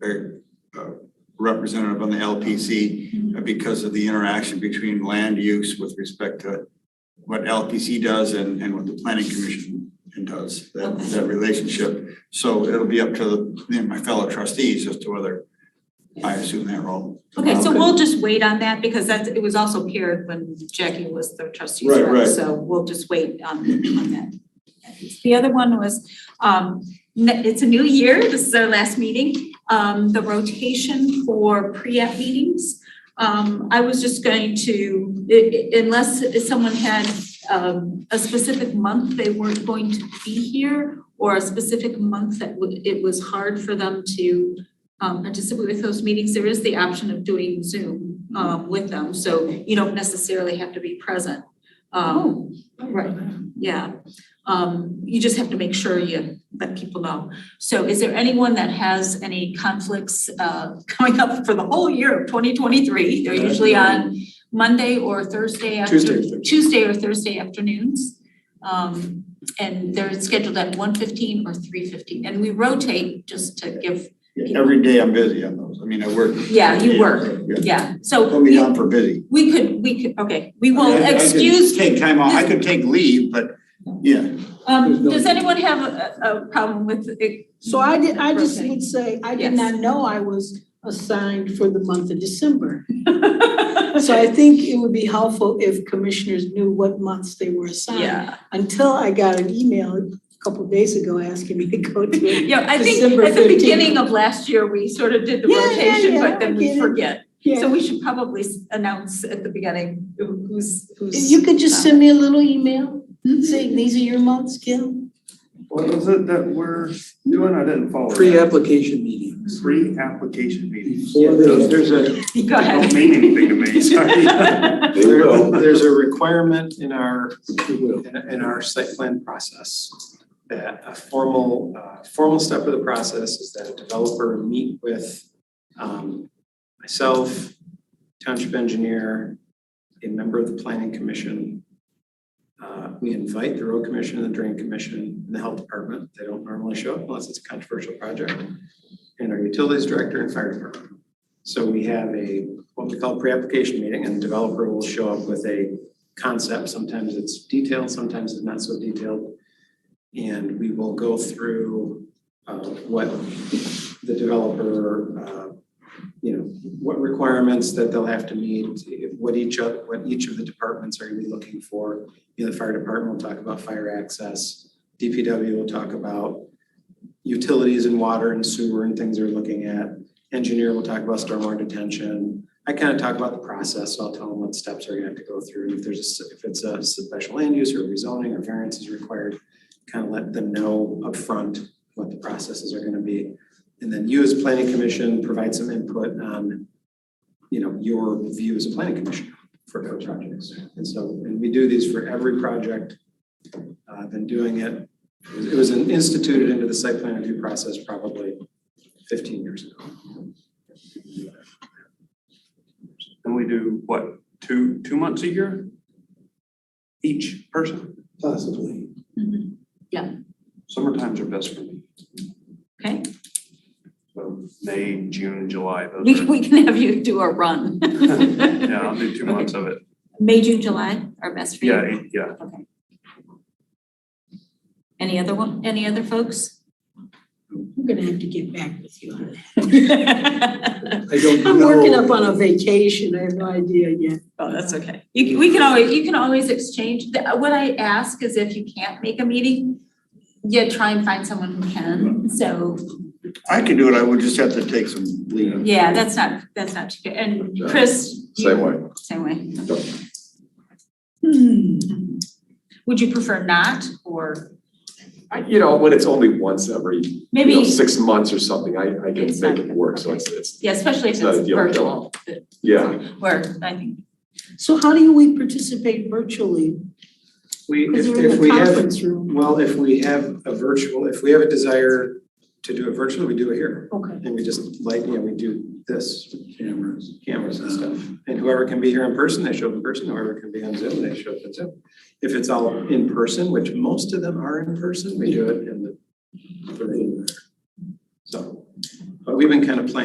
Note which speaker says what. Speaker 1: a a representative on the LPC uh, because of the interaction between land use with respect to what LPC does and, and what the planning commission does, that, that relationship. So it'll be up to the- you know, my fellow trustees as to whether I assume Um, that role.
Speaker 2: Okay, so we'll just wait on that because that's, it was also paired when Jackie was the trustee's
Speaker 1: Right,
Speaker 2: rep,
Speaker 1: right.
Speaker 2: so we'll just wait on on that. The other one was, um, ne- it's a new year, this is our last meeting, um, the rotation for pre-app meetings. Um, I was just going to, i- i- unless someone had um a specific month they weren't going to be here or a specific month that would, it was hard for them to um, participate with those meetings, there is the option of doing Zoom um, with them, so you don't necessarily have to be present. Um, right, yeah. Um, you just have to make sure you let people know. So is there anyone that has any conflicts uh coming up for the whole year of twenty twenty-three? They're usually on Monday or Thursday after.
Speaker 3: Tuesday or Thursday.
Speaker 2: Tuesday or Thursday afternoons. Um, and they're scheduled at 1:15 or three fifteen, and we rotate just to give
Speaker 1: Yeah, Every day I'm busy on those. I mean, I work.
Speaker 2: Yeah, you work.
Speaker 1: Yeah.
Speaker 2: Yeah, so
Speaker 1: Put me
Speaker 2: we,
Speaker 1: down for busy.
Speaker 2: we could, we could, okay, we
Speaker 1: I
Speaker 2: will
Speaker 1: mean, I- I could
Speaker 2: excuse,
Speaker 1: Take time off, I could take leave, but, yeah,
Speaker 3: There's
Speaker 2: um,
Speaker 3: no-
Speaker 2: does anyone have a, a problem with it?
Speaker 4: So I did, I just
Speaker 2: Rotating.
Speaker 4: would say, I did
Speaker 2: Yes.
Speaker 4: not know I was assigned for the month of December. So I think it would be helpful if commissioners knew what months they were assigned.
Speaker 2: Yeah,
Speaker 4: Until I got an email a couple of days ago asking me to go to it.
Speaker 2: yeah, I think
Speaker 4: December
Speaker 2: at the
Speaker 4: 15th.
Speaker 2: beginning of last year, we sort of did the
Speaker 4: Yeah, yeah,
Speaker 2: rotation,
Speaker 4: yeah,
Speaker 2: but then we
Speaker 4: I get it.
Speaker 2: forget. So
Speaker 4: Yeah.
Speaker 2: we should probably s- announce at the beginning who- who's, who's.
Speaker 4: You could just send me a little email
Speaker 2: Mm-hmm.
Speaker 4: saying, these are your months, Gil.
Speaker 5: What was it that we're doing? I didn't follow. that.
Speaker 3: Pre-application meetings.
Speaker 5: Pre-application meetings.
Speaker 3: Before they-
Speaker 5: Those- There's a, they
Speaker 2: Go
Speaker 5: don't
Speaker 2: ahead.
Speaker 5: mean anything to me, sorry.
Speaker 6: There- There's a requirement in our,
Speaker 3: It will.
Speaker 6: in in our site plan process that a formal, uh, formal step of the process is that a developer meet with um, myself, township engineer, a member of the planning commission. Uh, We invite the road commission, the drain commission, and the health department. They don't normally show up unless it's a controversial project. And our utilities director and fire department. So we have a, what we call pre-application meeting, and the developer will show up with a concept. Sometimes it's detailed, sometimes it's not so detailed. And we will go through uh, what the developer, uh, you know, what requirements that they'll have to meet, what each of, what each of the departments are gonna be looking for. You know, the fire department will talk about fire access, DPW will talk about utilities and water and sewer and things they're looking at. Engineer will talk about stormwater detention, I kind of talk about the process, so I'll tell them what steps are gonna have to go through, and if there's, a s- if it's a special land use or rezoning or variance is required, kind of let them know upfront what the processes are gonna be. And then you as planning commission provide some input on, you know, your view as a planning commission for for projects. And so, and we do these for every project. Uh, I've been doing it, it was- it was instituted into the site plan review process probably fifteen years ago.
Speaker 5: And we do, what, two, two months a year? Each person?
Speaker 3: Possibly.
Speaker 2: Mhm.
Speaker 5: Summer times are best for me.
Speaker 2: Okay,
Speaker 5: So May, June, July, those
Speaker 2: we,
Speaker 5: are,
Speaker 2: we can have you do a run.
Speaker 5: yeah, I'll do two
Speaker 2: Okay.
Speaker 5: months of it.
Speaker 2: May, June, July are best for you.
Speaker 5: Yeah, eight- yeah.
Speaker 2: Okay. Any other one, any other folks?
Speaker 4: I'm gonna have to get back with you on that.
Speaker 2: Oh,
Speaker 3: I don't know.
Speaker 4: I'm working up on a vacation. I have no idea yet.
Speaker 2: Oh, that's okay. You, can- we can always, you can always exchange, The- what I ask is if you can't make a meeting, yeah, try and find someone who can, so,
Speaker 1: I could do it, I would just have to take some leave.
Speaker 2: yeah, that's not, that's not, too good. and Chris? you-
Speaker 6: Same way.
Speaker 2: Same way.
Speaker 6: Yep.
Speaker 4: Hmm.
Speaker 2: Would you prefer not, or
Speaker 7: I, you know, when it's only once every, you
Speaker 2: maybe,
Speaker 7: know, six months or something, I, I can
Speaker 2: It's
Speaker 7: make
Speaker 2: not
Speaker 7: it
Speaker 2: good.
Speaker 7: work, so
Speaker 2: Okay.
Speaker 7: it's, it's,
Speaker 2: yeah, especially if
Speaker 7: It's not a
Speaker 2: it's
Speaker 7: deal killer.
Speaker 2: virtual,
Speaker 7: yeah.
Speaker 2: where I think,
Speaker 4: So how do we participate virtually?
Speaker 6: We,
Speaker 4: Because
Speaker 6: if,
Speaker 4: we're in
Speaker 6: if
Speaker 4: the
Speaker 6: we have,
Speaker 4: conference room.
Speaker 6: Well, if we have a virtual, if we have a desire to do it virtually, we do it here.
Speaker 4: Okay.
Speaker 6: And we just like, you know, we do this. Cameras. Cameras and stuff. And whoever can be here in person, they show up in person. Whoever can be on Zoom, they show up on Zoom. If it's all in person, which most of them are in person, we do it in the. the room there. So But we've been kind of playing